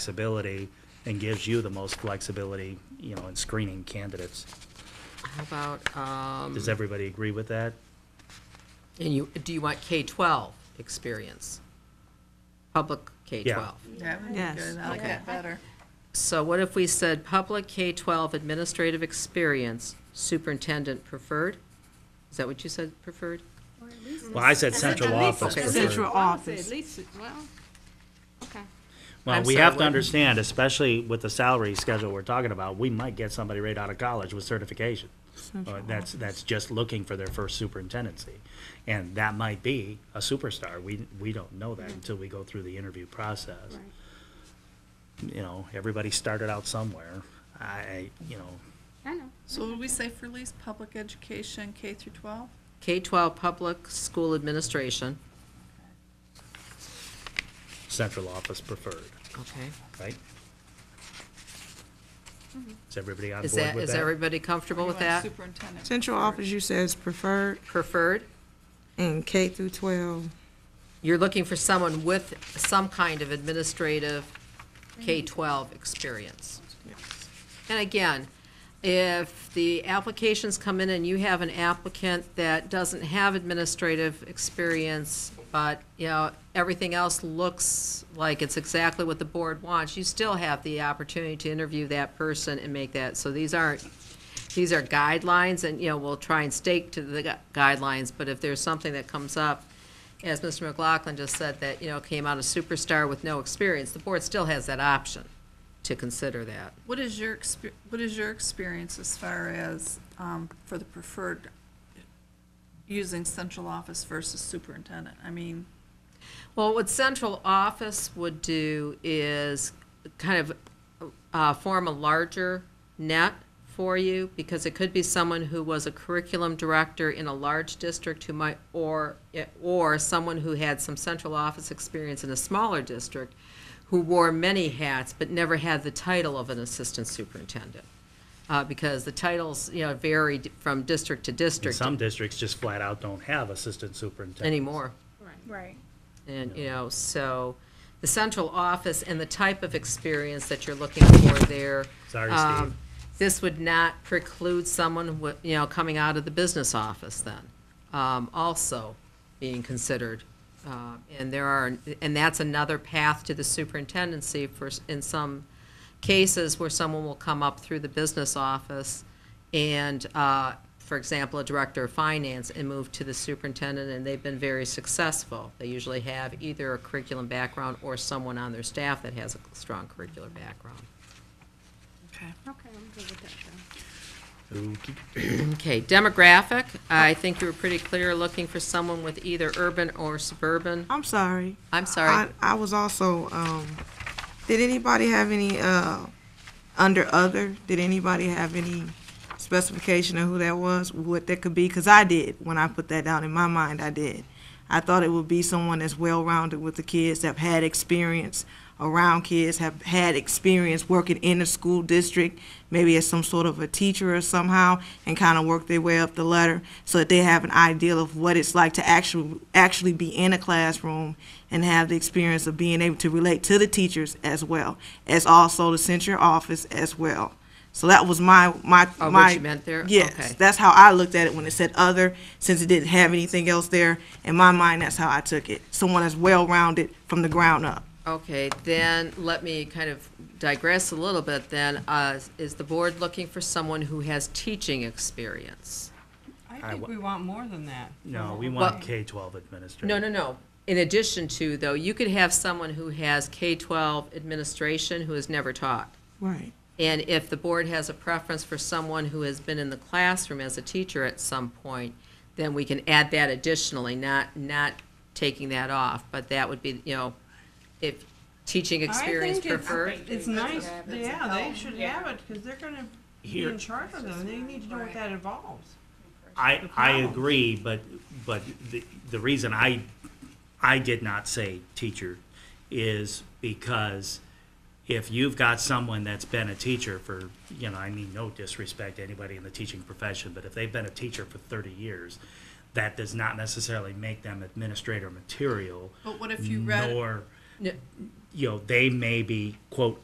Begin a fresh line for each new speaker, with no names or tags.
flexibility and gives you the most flexibility, you know, in screening candidates.
How about, um,
Does everybody agree with that?
and you, do you want K-12 experience? Public K-12?
That would be
Yes.
good. I like that better.
So what if we said public K-12 administrative experience, superintendent preferred? Is that what you said, preferred?
Well, I said central office
okay.
for sure.
Central office.
At least, well, okay.
Well,
I'm
we
sorry,
have to
what?
understand, especially with the salary schedule we're talking about, we might get somebody right out of college with certification. Uh, That's, that's just looking for their first superintendency. And that might be a superstar. We, we don't know that until we go through the interview process. You know, everybody started out somewhere. I, you know,
I know.
So would we say for least public education, K through twelve?
K-12 public school administration,
central office preferred,
okay?
right? Is everybody on board
Is
with
that,
that?
is everybody comfortable with that?
Superintendent.
Central office you said is preferred
Preferred?
in K through 12.
You're looking for someone with some kind of administrative K-12 experience. And again, if the applications come in and you have an applicant that doesn't have administrative experience, but, you know, everything else looks like it's exactly what the board wants, you still have the opportunity to interview that person and make that, so these aren't, these are guidelines, and, you know, we'll try and stake to the gu- guidelines, but if there's something that comes up, as Mr. McLaughlin just said, that, you know, came out a superstar with no experience, the board still has that option to consider that.
What is your expe- what is your experience as far as, um, for the preferred, using central office versus superintendent? I mean,
Well, what central office would do is kind of uh, form a larger net for you, because it could be someone who was a curriculum director in a large district who might, or, eh, or someone who had some central office experience in a smaller district, who wore many hats but never had the title of an assistant superintendent, Uh, because the titles, you know, vary d- from district to
And
district
some districts just flat out don't have assistant superintendents.
anymore.
Right.
And, you know, so the central office and the type of experience that you're looking for there.
Sorry,
um,
Steve.
This would not preclude someone with, you know, coming out of the business office then, um, also being considered. Uh, and there are, and that's another path to the superintendency for, s- in some cases where someone will come up through the business office and, uh, for example, a director of finance and move to the superintendent, and they've been very successful. They usually have either a curriculum background or someone on their staff that has a strong curricular background.
okay.
Okay, I'm good with that then.
Okey-
Okay, demographic, I think you were pretty clear, looking for someone with either urban or suburban.
I'm sorry.
I'm sorry.
I, I was also, um, did anybody have any, uh, under other, did anybody have any specification of who that was, what that could be? Because I did, when I put that down in my mind, I did. I thought it would be someone that's well-rounded with the kids, that had experience around kids, have had experience working in a school district, maybe as some sort of a teacher or somehow, and kind of work their way up the ladder so that they have an idea of what it's like to actually actually be in a classroom and have the experience of being able to relate to the teachers as well as also the central office as well. So that was my my
Oh, what
my
you meant there?
Yes,
Okay.
that's how I looked at it when it said other, since it didn't have anything else there. In my mind, that's how I took it. Someone that's well rounded from the ground up.
Okay, then let me kind of digress a little bit then. Uh, Is the board looking for someone who has teaching experience?
I
I
think
think
wa-
we want more than that.
No, we want
Well-
K-12 administrators.
No, no, no. In addition to, though, you could have someone who has K-12 administration who has never taught.
Right.
And if the board has a preference for someone who has been in the classroom as a teacher at some point, then we can add that additionally, not, not taking that off, but that would be, you know, if teaching experience preferred.
It's nice, yeah, they should have it, because they're gonna be
Here-
in charge of them, they need to know what that involves.
I, I
problem.
agree, but, but the, the reason I, I did not say teacher is because if you've got someone that's been a teacher for, you know, I mean, no disrespect to anybody in the teaching profession, but if they've been a teacher for thirty years, that does not necessarily make them administrator material,
But what if you read,
nor
No.
you know, they may be, quote,